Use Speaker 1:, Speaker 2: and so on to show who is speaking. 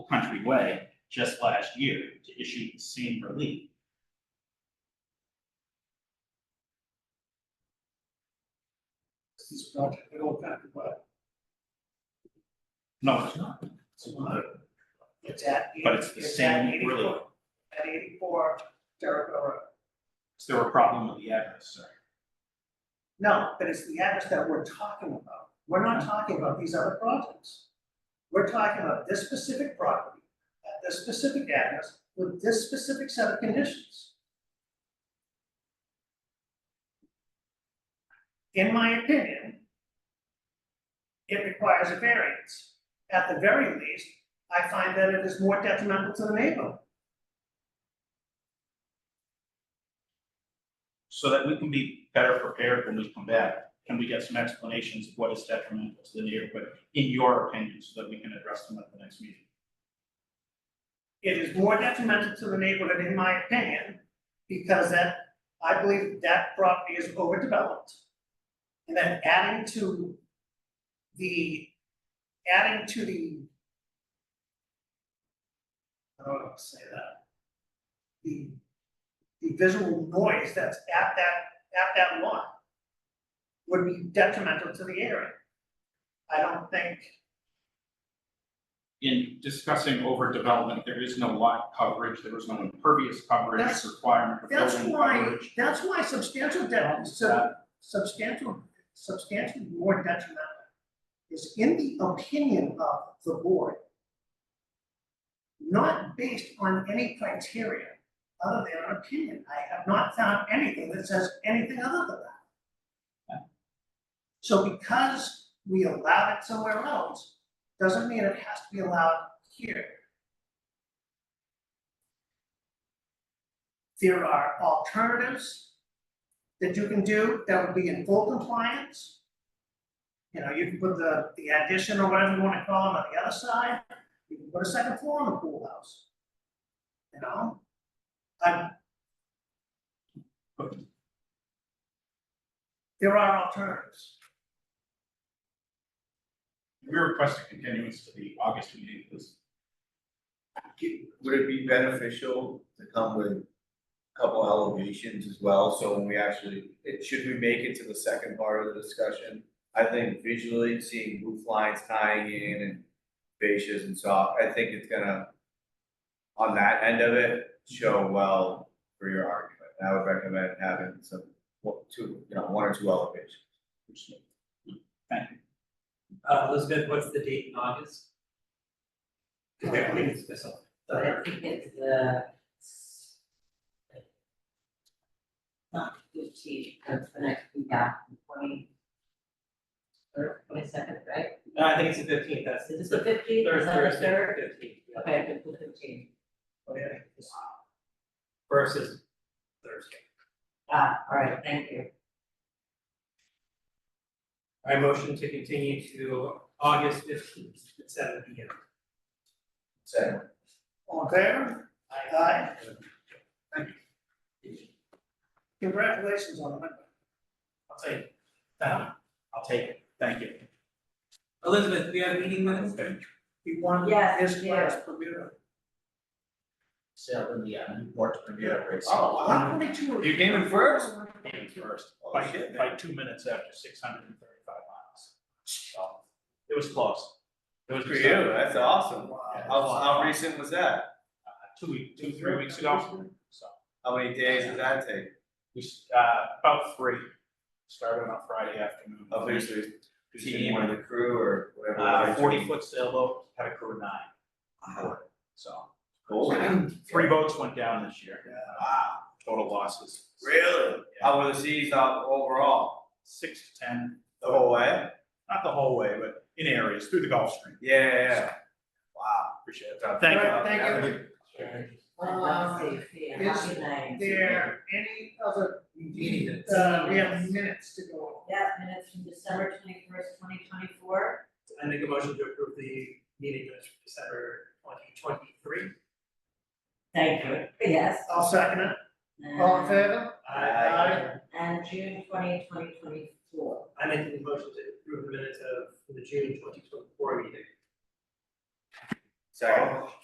Speaker 1: Country Way just last year to issue the same relief.
Speaker 2: This is not at all kind of, uh, but
Speaker 1: No, it's not,
Speaker 2: it's not. It's at.
Speaker 1: but it's the
Speaker 2: it's
Speaker 1: same
Speaker 2: at 84
Speaker 1: relief.
Speaker 2: At eighty-four Jericho Road.
Speaker 1: Is there a problem with the address, sir?
Speaker 2: No, but it's the address that we're talking about. We're not talking about these other projects. We're talking about this specific property, at this specific address, with this specific set of conditions. In my opinion, it requires a variance. At the very least, I find that it is more detrimental to the neighborhood.
Speaker 1: So that we can be better prepared when we come back, can we get some explanations of what is detrimental to the neighborhood, in your opinion, so that we can address them at the next meeting?
Speaker 2: It is more detrimental to the neighborhood, in my opinion, because that, I believe that property is overdeveloped. And then adding to the, adding to the. I don't know how to say that. The, the visual noise that's at that, at that lot. Would be detrimental to the area. I don't think,
Speaker 1: in discussing overdevelopment, there is no lot coverage, there is no impervious coverage
Speaker 2: That's-
Speaker 1: requirement for
Speaker 2: that's
Speaker 1: building
Speaker 2: why,
Speaker 1: coverage.
Speaker 2: that's why substantial debt, so. substantial, substantially more detrimental is in the opinion of the board, not based on any criteria other than an opinion. I have not found anything that says anything other than that. So because we allowed it somewhere else, doesn't mean it has to be allowed here. There are alternatives that you can do that would be in full compliance. You know, you can put the, the addition or whatever you wanna call it on the other side, you can put a second floor on the pool house. You know? I. There are alternatives.
Speaker 1: We request a continuance to the August meeting, please.
Speaker 3: Would it be beneficial to come with a couple elevations as well, so when we actually, it, should we make it to the second part of the discussion? I think visually seeing roof lines tying in and fascias and soft, I think it's gonna, on that end of it, show well for your argument, and I would recommend having some, one- two, you know, one or two elevations.
Speaker 1: Thank you.
Speaker 4: Uh, Elizabeth, what's the date in August?
Speaker 2: Yeah, I think
Speaker 4: But
Speaker 5: Uh,
Speaker 4: I think it's the. Not fifteen, that's the next week after twenty. Or twenty second, right?
Speaker 5: No, I think it's the fifteenth, that's
Speaker 4: Is
Speaker 5: the
Speaker 4: this the
Speaker 5: third,
Speaker 4: fifteenth, is that the
Speaker 5: Thursday,
Speaker 4: third?
Speaker 5: fifteenth.
Speaker 4: Okay, I think the fifteen,
Speaker 5: Versus Thursday.
Speaker 4: ah, all right, thank you.
Speaker 5: I motion to continue to August fifteenth at seven P M.
Speaker 3: Second.
Speaker 2: All in favor? Aye. Thank you. Congratulations on the,
Speaker 5: I'll take it. Uh, I'll take it.
Speaker 1: Thank you.
Speaker 5: Elizabeth, we have meeting minutes?
Speaker 2: you won
Speaker 4: Yes,
Speaker 2: this
Speaker 4: yeah.
Speaker 2: class Bermuda.
Speaker 6: sale in the uh, Newport Premier race.
Speaker 1: Oh,
Speaker 2: One twenty-two.
Speaker 1: You came in first? Came in first, by, by two minutes after six hundred and thirty-five miles. So, it was close. It was
Speaker 3: For you, that's awesome.
Speaker 1: Yeah.
Speaker 3: How, how recent was that?
Speaker 1: Uh, Two week, two, three weeks ago, so,
Speaker 3: How many days did that take?
Speaker 1: we, s- uh, about three, started on Friday afternoon.
Speaker 3: Obviously,
Speaker 1: Tuesday
Speaker 3: team or
Speaker 1: morning.
Speaker 3: the crew or whatever.
Speaker 1: Uh, forty foot sailboat, had a crew of nine,
Speaker 3: Wow.
Speaker 1: so.
Speaker 3: Cool.
Speaker 1: Three boats went down this year,
Speaker 3: Wow,
Speaker 1: total losses.
Speaker 3: really? How were the seas out overall?
Speaker 1: Six to ten,
Speaker 3: The whole way?
Speaker 1: not the whole way, but in areas, through the Gulf Stream.
Speaker 3: Yeah, yeah, yeah. Wow.
Speaker 1: Appreciate it. Thank you.
Speaker 2: Right, thank you.
Speaker 4: Let's see, see,
Speaker 2: is
Speaker 4: happy night.
Speaker 2: There any other?
Speaker 6: Meeting
Speaker 2: Uh, we have minutes to go.
Speaker 4: Yeah, minutes from December twenty first, twenty twenty four,
Speaker 5: I make a motion to approve the meeting minutes for December twenty twenty three.
Speaker 4: thank you, yes.
Speaker 2: I'll second it. All in favor?
Speaker 3: Aye.
Speaker 4: And June 20, 2024.
Speaker 5: I make a motion to approve the minutes of the June twenty twenty four meeting.
Speaker 3: Second.